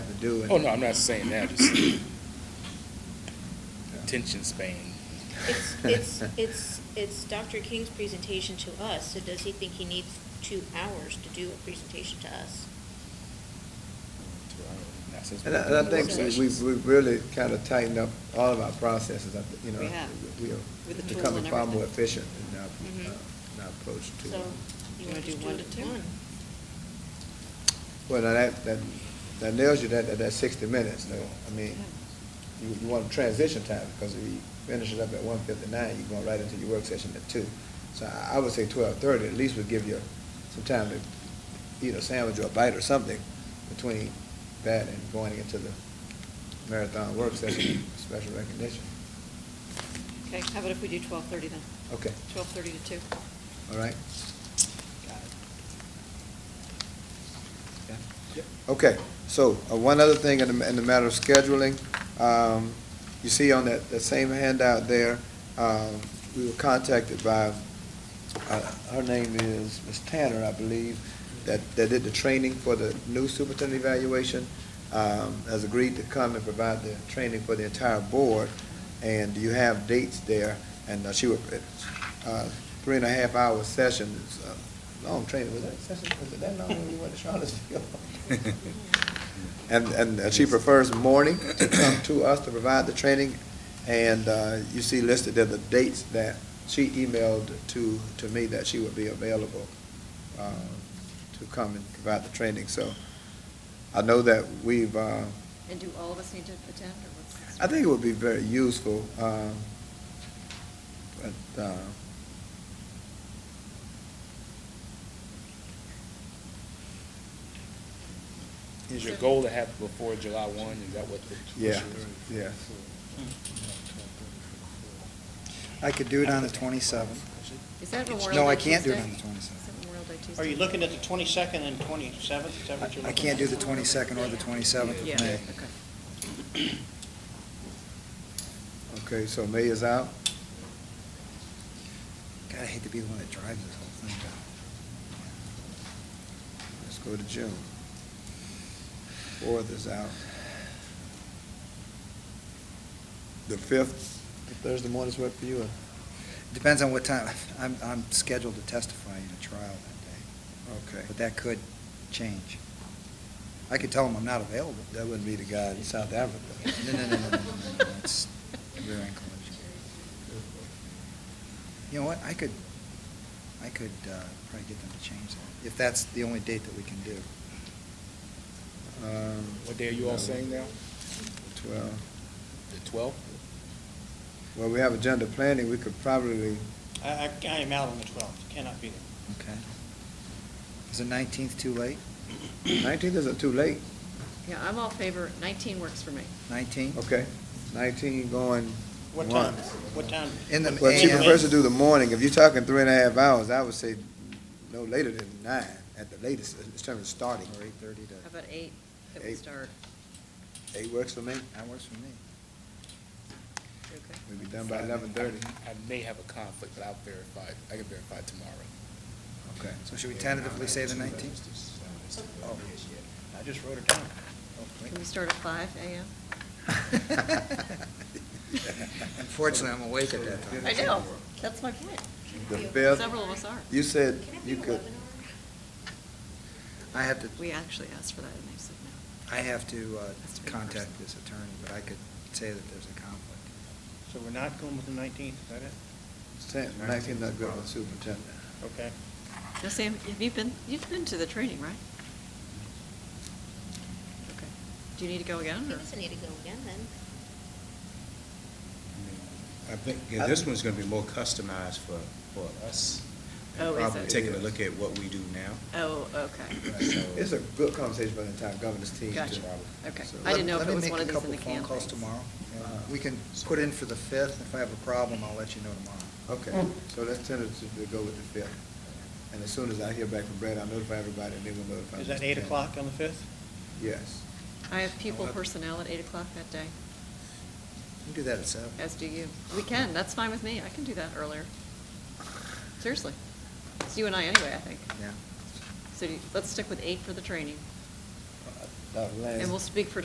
do. and- Oh, no, I'm not saying that, just attention span. It's, it's, it's, it's Dr. King's presentation to us, so does he think he needs two hours to do a presentation to us? Not since And I, we're and I doing think work we- we've, sessions. we've really kind of tightened up all of our processes, I thi- you know. We have, We are with the tools becoming and far more everything. efficient in our, Mhm. uh, in our approach to. So, you wanna just do one to two? Well, now that, that, that nails you that, that- that sixty minutes, though. I mean, you, you want transition time, because if you finish it up at one fifty-nine, you're going right into your work session at two. So I, I would say twelve thirty, at least would give you some time to eat a sandwich or a bite or something between that and going into the marathon work session, special recognition. Okay, how about if we do twelve thirty then? Okay, Twelve thirty to two. all right? Okay, so uh, one other thing in the, in the matter of scheduling, um, you see on that, that same handout there, um, we were contacted by, uh, her name is Ms. Tanner, I believe, that, that did the training for the new superintendent evaluation, um, has agreed to come and provide the training for the entire board, and you have dates there, and uh, she would, uh, three and a half hour session, it's a long training, was that session, was it that long when we went to Charlottesville? And, and uh, she prefers morning to come to us to provide the training. And uh, you see listed there the dates that she emailed to, to me that she would be available uh, to come and provide the training. So I know that we've, uh, And do all of us need to attend, or what's? I think it would be very useful. um, But, uh, Is your goal to have it before July one, is that what the? yeah, yeah. I could do it on the twenty-seventh. Is that Memorial Day Tuesday? No, I can't do it on the 27th. Is that Memorial Day Tuesday? Are you looking at the twenty-second and twenty-seventh? Is that what you're looking at? I can't do the twenty-second or the twenty-seventh of Yeah, May. okay. Okay, so May is out. God, I hate to be the one that drives this whole thing down. Let's go to June. Fourth is out. The fifth, Thursday morning's work for you, or- Depends on what time, I'm, I'm scheduled to testify in a trial that day. Okay. But that could change. I could tell them I'm not available. that wouldn't be the guy in South Africa. No, no, no, no, no, no, no, it's rear end collision. You know what, I could, I could uh, probably get them to change that, if that's the only date that we can do. Um, What day are you all saying now? Twelve. The twelfth? Well, we have agenda planning, we could probably, I, I I am out on the twelfth, cannot be there. Okay. Is the nineteenth too late? nineteenth isn't too late, Yeah, I'm all favor, nineteen works for me. Nineteen? okay? Nineteen going What time? once. What time? In the Well, she AM. prefers to do the morning, if you're talking three and a half hours, I would say no later than nine, at the latest, in terms of starting. Or eight thirty to, How about eight, that we Eight. start? Eight works for me, that works for me. You okay? we'll be done by eleven thirty. I may have a conflict, but I'll verify, it. I can verify it tomorrow. Okay. So should we tentatively say the nineteenth? I just wrote it down. Can we start at five AM? Unfortunately, I'm awake at that time. I know, that's my point. The fifth, Several of us are. you said Can it be you could, eleven hours? I have to, We actually asked for that, and they said no. I have to uh, Has to be in contact person. this attorney, but I could say that there's a conflict. So we're not going with the nineteenth, is that it? nineteen not good with superintendent. Okay. Now, Sam, have you been, you've been to the training, right? Okay. Do you need to go again, He or? doesn't need to go again then. I think, yeah, this one's gonna be more customized for, for us. and Oh, is Probably it? taking a look at what we do now. Oh, okay. It's a good conversation for the entire governance team. Gotcha. Okay. So- I didn't know if Let- it was one of these in Let the me make a couple phone calls campaigns. tomorrow. Uh, We can put in for the 5th. If I have a problem, I'll let you know tomorrow. Hmm. Okay, so let's tentatively go with the fifth. And as soon as I hear back from Brad, I'll notify everybody, and then we'll notify. Is Mr. that eight Tanner. o'clock on the fifth? Yes. I have pupil personnel at eight o'clock that day, We can do that at 7. as do you. We can, that's fine with me, I can do that earlier. Seriously. It's you and I anyway, I think. Yeah. So do you- let's stick with eight for the training, Uh, and last- we'll speak for